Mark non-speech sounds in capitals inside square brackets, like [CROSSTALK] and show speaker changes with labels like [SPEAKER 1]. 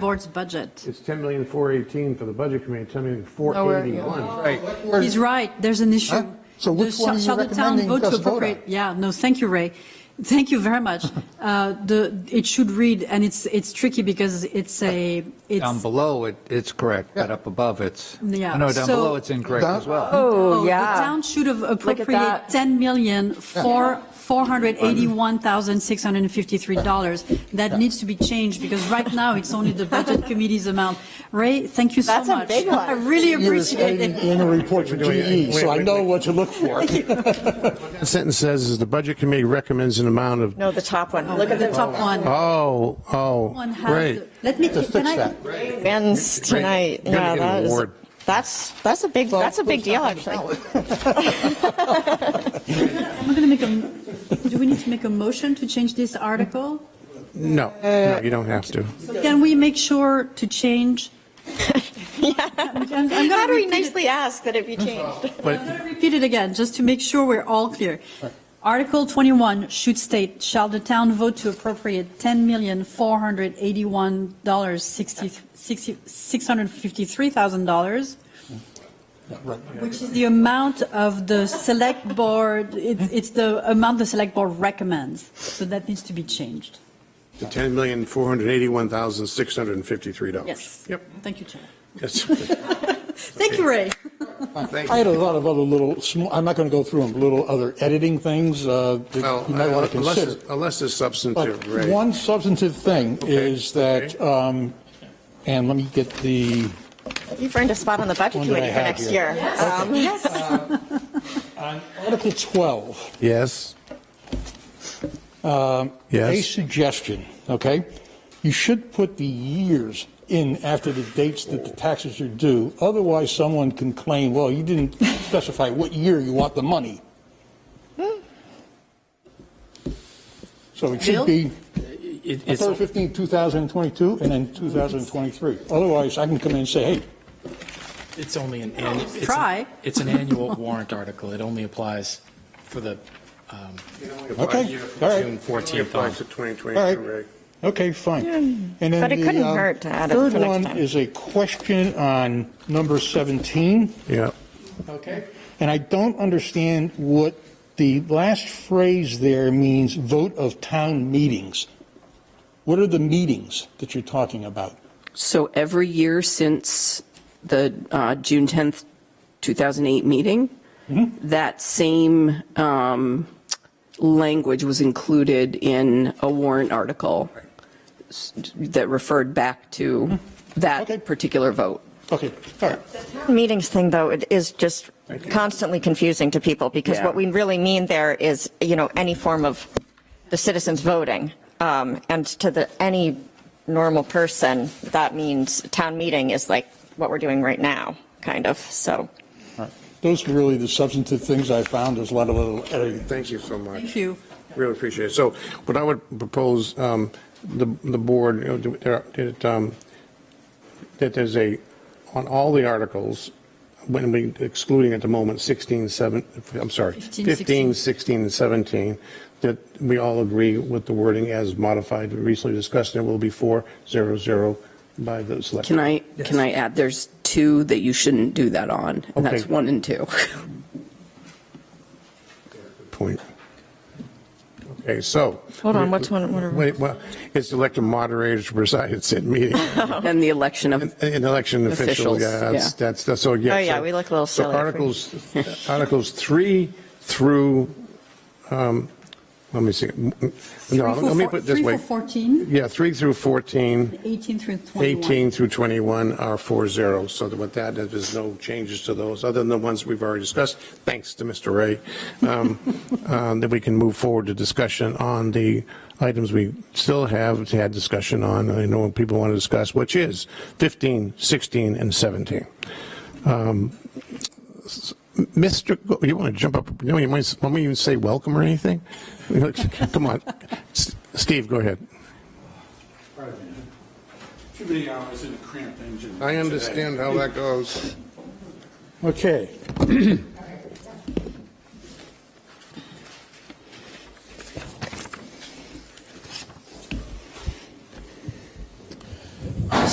[SPEAKER 1] board's budget.
[SPEAKER 2] It's 10,418 for the budget committee, 10,481.
[SPEAKER 3] Right.
[SPEAKER 1] He's right, there's an issue.
[SPEAKER 4] Huh? So which
[SPEAKER 1] The-
[SPEAKER 4] one are you
[SPEAKER 1] shall the town
[SPEAKER 4] recommending
[SPEAKER 1] vote to
[SPEAKER 4] us vote on?
[SPEAKER 1] appropriate- Yeah, no, thank you, Ray. Thank you very
[SPEAKER 4] [LAUGHS]
[SPEAKER 1] much. Uh, The, it should read, and it's, it's tricky because it's a,
[SPEAKER 3] Down
[SPEAKER 1] it's,
[SPEAKER 3] below, it, it's correct, but up above, it's,
[SPEAKER 1] Yeah,
[SPEAKER 3] no, down
[SPEAKER 1] so-
[SPEAKER 3] below, it's incorrect as well.
[SPEAKER 1] oh,
[SPEAKER 5] Oh,
[SPEAKER 1] the
[SPEAKER 5] yeah.
[SPEAKER 1] town should have appropriated
[SPEAKER 5] that.
[SPEAKER 1] 10 million for 481,653 dollars. That needs to be changed because right now it's only the
[SPEAKER 4] [LAUGHS]
[SPEAKER 1] budget committee's amount. Ray, thank you so much.
[SPEAKER 5] That's a big one.
[SPEAKER 1] I really
[SPEAKER 4] Years
[SPEAKER 1] appreciate it.
[SPEAKER 4] annual report for
[SPEAKER 2] doing-
[SPEAKER 4] GE, so I
[SPEAKER 2] wait,
[SPEAKER 4] know
[SPEAKER 2] wait,
[SPEAKER 4] what to look for.
[SPEAKER 2] That sentence says is the budget committee recommends an amount of,
[SPEAKER 5] No, the top one. Look at
[SPEAKER 1] The
[SPEAKER 5] the
[SPEAKER 1] top one.
[SPEAKER 2] oh,
[SPEAKER 1] One
[SPEAKER 2] oh,
[SPEAKER 1] has
[SPEAKER 2] right.
[SPEAKER 1] the- Let me,
[SPEAKER 4] To
[SPEAKER 1] can
[SPEAKER 4] fix
[SPEAKER 1] I,
[SPEAKER 4] that.
[SPEAKER 5] men's tonight.
[SPEAKER 2] You're gonna
[SPEAKER 5] Yeah,
[SPEAKER 2] get an
[SPEAKER 5] that is,
[SPEAKER 2] award.
[SPEAKER 5] that's, that's a big, that's a big deal, actually.
[SPEAKER 1] I'm going to make a, do we need to make a motion to change this article?
[SPEAKER 2] No,
[SPEAKER 4] Uh,
[SPEAKER 2] no, you don't have to.
[SPEAKER 1] Can we make sure to
[SPEAKER 5] [LAUGHS]
[SPEAKER 1] change?
[SPEAKER 5] How do we nicely ask that it be changed?
[SPEAKER 1] I'm going to repeat it again, just to make sure we're all clear. Article 21 should state, shall the town vote to appropriate $10,481,653,000 Which is the amount of the select board, it's, it's the amount the select board recommends. So that needs to be changed.
[SPEAKER 2] The 10,481,653 dollars.
[SPEAKER 1] Yes.
[SPEAKER 2] Yep.
[SPEAKER 1] Thank you, Chair.
[SPEAKER 2] Yes.
[SPEAKER 1] Thank you, Ray.
[SPEAKER 2] [LAUGHS] Thank
[SPEAKER 4] I
[SPEAKER 2] you.
[SPEAKER 4] had a lot of other little, sm- I'm not going to go through them, little other editing things uh, that
[SPEAKER 2] Well,
[SPEAKER 4] you might want to
[SPEAKER 2] unless-
[SPEAKER 4] consider.
[SPEAKER 2] Unless it's
[SPEAKER 4] But
[SPEAKER 2] substantive, right?
[SPEAKER 4] one substantive thing
[SPEAKER 2] Okay,
[SPEAKER 4] is that, um, and let me get the,
[SPEAKER 5] You've earned a spot on the budget
[SPEAKER 4] One that I
[SPEAKER 5] committee for
[SPEAKER 4] have
[SPEAKER 5] next
[SPEAKER 4] here.
[SPEAKER 5] year. Um,
[SPEAKER 4] on Article 12,
[SPEAKER 2] Yes.
[SPEAKER 4] a
[SPEAKER 2] Yes.
[SPEAKER 4] suggestion, okay? You should put the years in after the dates that the taxes are due. Otherwise, someone can claim, well, you didn't specify what year you want the money. So it
[SPEAKER 1] Bill?
[SPEAKER 4] should be
[SPEAKER 6] It- It's,
[SPEAKER 4] October 15, 2022, and then 2023. Otherwise, I can come in and say, hey,
[SPEAKER 6] it's only an, annu- it's an-
[SPEAKER 1] Try.
[SPEAKER 6] It's an annual warrant article. It only applies for the, um,
[SPEAKER 4] okay, all
[SPEAKER 6] June
[SPEAKER 4] right,
[SPEAKER 6] 14th on.
[SPEAKER 2] Applies to
[SPEAKER 4] All
[SPEAKER 2] 2022,
[SPEAKER 4] right.
[SPEAKER 2] right?
[SPEAKER 4] okay, fine. And then
[SPEAKER 5] But it
[SPEAKER 4] the,
[SPEAKER 5] couldn't
[SPEAKER 4] um,
[SPEAKER 5] hurt to add it for next
[SPEAKER 4] Third one
[SPEAKER 5] time.
[SPEAKER 4] is a question on number 17.
[SPEAKER 2] Yeah.
[SPEAKER 4] Okay. And I don't understand what the last phrase there means, vote of town meetings. What are the meetings that you're talking about?
[SPEAKER 7] So every year since the uh, June 10th, 2008 meeting, that same um, language was included in a warrant article s- that referred back to
[SPEAKER 4] Okay.
[SPEAKER 7] that particular vote.
[SPEAKER 4] Okay, all right.
[SPEAKER 5] Meetings thing, though, it is just constantly confusing to people because
[SPEAKER 7] Yeah.
[SPEAKER 5] what we really mean there is, you know, any form of the citizens voting. Um, And to the, any normal person, that means town meeting is like what we're doing right now, kind of, so.
[SPEAKER 4] All right. Those are really the substantive things I found. There's a lot of little editing.
[SPEAKER 2] Thank you so much.
[SPEAKER 1] Thank you.
[SPEAKER 2] Really appreciate it. So what I would propose, um, the, the board, you know, do- there- that, um, that there's a, on all the articles, when we excluding at the moment 16, 7, I'm sorry,
[SPEAKER 1] 15,
[SPEAKER 2] 15, 16, and 17, that we all agree with the wording as modified, recently discussed, there will be 400 by the select.
[SPEAKER 7] Can I, can I add, there's two that you shouldn't do that on, and that's
[SPEAKER 2] Okay.
[SPEAKER 7] one and two.
[SPEAKER 2] Point. Okay, so.
[SPEAKER 5] Hold on, what's one- what are-
[SPEAKER 2] Wait, well, it's elected moderators to preside at said meeting.
[SPEAKER 7] And the election of,
[SPEAKER 2] An election official,
[SPEAKER 7] Officials,
[SPEAKER 2] yeah, that's,
[SPEAKER 7] yeah.
[SPEAKER 2] that's, that's, so, yeah.
[SPEAKER 5] Oh, yeah,
[SPEAKER 2] so-
[SPEAKER 5] we look a little silly
[SPEAKER 2] So
[SPEAKER 5] if we-
[SPEAKER 2] articles,
[SPEAKER 5] [LAUGHS]
[SPEAKER 2] uh, articles three through, um, let me see. No,
[SPEAKER 1] Three for
[SPEAKER 2] let me
[SPEAKER 1] four-
[SPEAKER 2] put it this
[SPEAKER 1] Three
[SPEAKER 2] way.
[SPEAKER 1] for 14,
[SPEAKER 2] Yeah, three through 14,
[SPEAKER 1] 18 through 21.
[SPEAKER 2] 18 through 21 are four zero. So that with that, there's no changes to those, other than the ones we've already discussed, thanks to Mr. Ray. Um, [LAUGHS] um, That we can move forward to discussion on the items we still have had discussion on, I know what people want to discuss, which is 15, 16, and 17. Um, s- Mr., Go- you want to jump up, you know, you might, want me to even say welcome or anything? [LAUGHS] Come on, S- Steve, go ahead.
[SPEAKER 8] Too many hours in a cramped engine.
[SPEAKER 2] I understand how that goes.
[SPEAKER 8] Okay.